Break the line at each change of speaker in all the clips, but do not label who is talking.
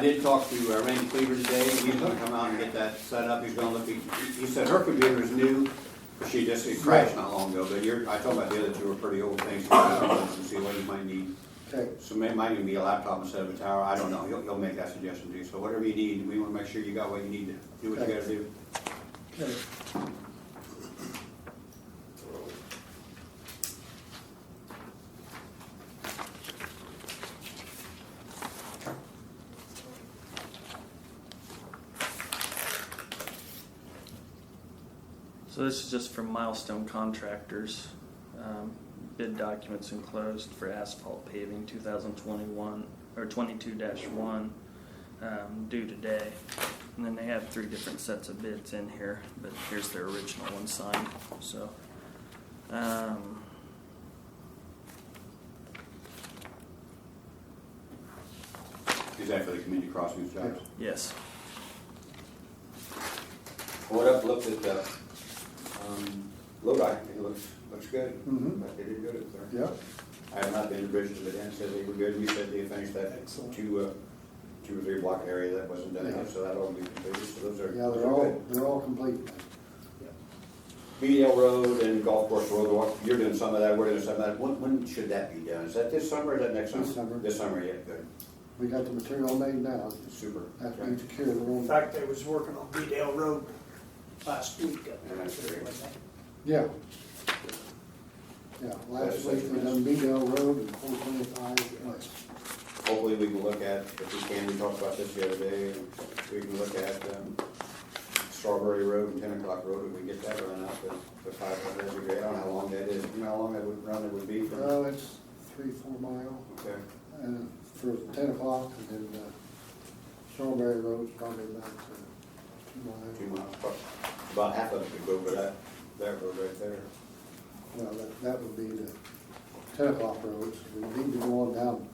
did talk to uh, Randy Cleaver today, he's gonna come out and get that set up, he's gonna look, he, he said her computer is new, she just, it crashed not long ago, but you're, I told my dealer that you were pretty old things, to look at and see what you might need.
Okay,
So may, might even be a laptop instead of a tower, I don't know, he'll, he'll make that suggestion to you, so whatever you need, we wanna make sure you got what you need to do what you gotta do.
okay.
So this is just for milestone contractors. Um, Bid documents enclosed for asphalt paving 2021, or 22-1, um, due today. And then they have three different sets of bids in here, but here's their original one signed, so. um,
Is that for the community crossings jobs?
Yes,
Went up, looked at the, um, Lodi, it looks, looks good.
Mhm.
They did good up there.
Yep,
I have not been to Bridges, but Dan said they were good, you said they finished that
Excellent.
two, uh, two or three block area that wasn't done yet,
Yeah.
so that'll be completed, so those are.
yeah,
those
they're
are
all,
good.
they're all complete.
Beadle Road and Golf Course Road, what- you're doing some of that, we're doing some of that, when, when should that be done? Is that this summer or is that next summer?
This summer.
This summer, yeah, good,
We got the material made now,
super.
after
Okay.
we secure the
In
room.
fact, I was working on Beedale Road last week up there.
That's great.
Yeah. Yeah, last week we done Beadle Road and four twenty-five west.
Hopefully, we can look at, if we can, we talked about this the other day, and we can look at um, Strawberry Road and Ten O'Clock Road, if we get that run out, the, the five hundred, that'd be great, I don't know how long that is, you know how long that would, run it would be from?
Well, it's three, four mile,
Okay,
and for ten o'clock, and then, uh, Strawberry Road's probably about uh, two
two
miles.
miles, but about half of it could go over that, that road right there.
Well, that, that would be the ten o'clock roads, we need to go on down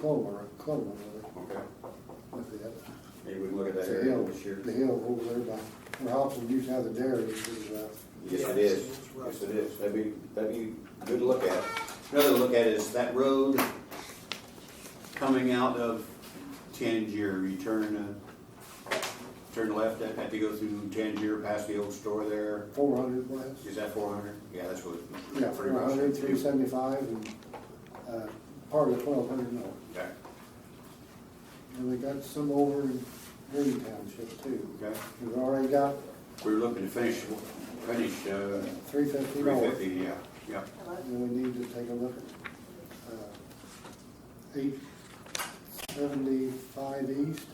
Clover, Clover Road,
Okay,
with that.
maybe we can look at that
The
area
hill,
this year.
the hill over there by, where Hobson used to have the dairy, it was, uh,
Yes, it is, yes, it is, that'd be, that'd be good to look at. Another look at is that road coming out of Tangier, you turn, uh, turn left, I had to go through Tangier, past the old store there,
four hundred west.
is that four hundred? Yeah, that's what.
Yeah,
pretty
four
much.
hundred, three seventy-five, and, uh, part of twelve hundred north.
Okay,
And we got some over in Green Township too.
okay,
We've already got
we were looking to finish, finish, uh,
three fifty
three
north,
fifty, yeah, yeah,
and we need to take a look at, uh, eight seventy-five east.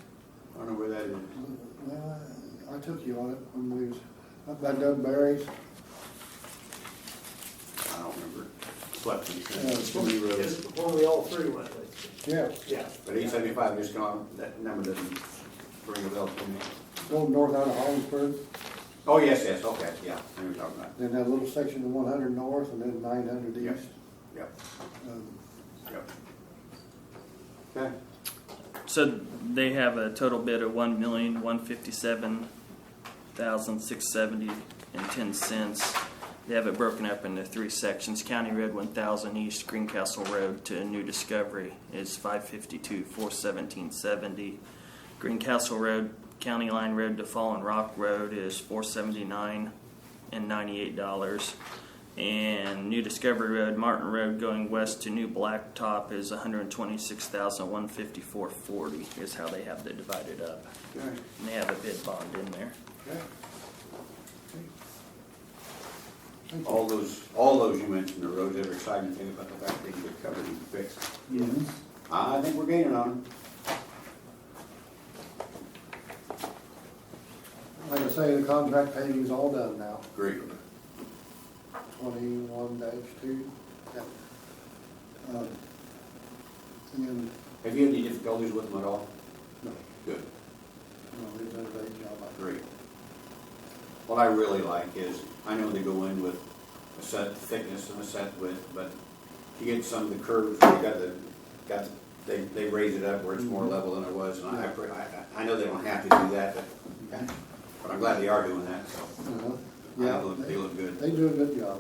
I don't know where that is.
Well, I- I took you on it when we was up by Doug Barry's.
I don't remember, slept in,
Yeah.
too many roads.
When we all three went, but-
Yeah,
yeah.
But eight seventy-five, just gone, that number doesn't ring a bell to me.
go north out of Hollinsburg,
Oh, yes, yes, okay, yeah, I know what you're talking about.
then that little section of one hundred north and then nine hundred
Yep.
east.
Yep,
Um,
yep. Okay,
so they have a total bid of one million one fifty-seven thousand six seventy and ten cents. They have it broken up into three sections. County Road one thousand east, Greencastle Road to New Discovery is five fifty-two, four seventeen seventy. Greencastle Road, County Line Road to Fallen Rock Road is four seventy-nine and ninety-eight dollars. And New Discovery Road, Martin Road going west to New Blacktop is one hundred twenty-six thousand one fifty-four forty is how they have it divided up.
okay,
And they have a bid bond in there.
okay.
thank you.
All those, all those you mentioned, the roads, every exciting thing about the fact they can get covered and fixed.
Mhm.
I think we're gaining on them.
Like I say, the contract paving's all done now,
Great.
twenty-one dash two. Um, And,
Have you had any difficulties with them at all?
no,
Good.
no, they've done a great job. I think.
Great. What I really like is, I know they go in with a set thickness and a set width, but you get some of the curves, you got the, got, the- they, they raise it up where it's more level than it was, and I, I, I- I know they don't have to do that, but, but I'm glad they are doing that, so.
Uh-huh.
They look,
Yeah,
they look good.
they- they do a good job.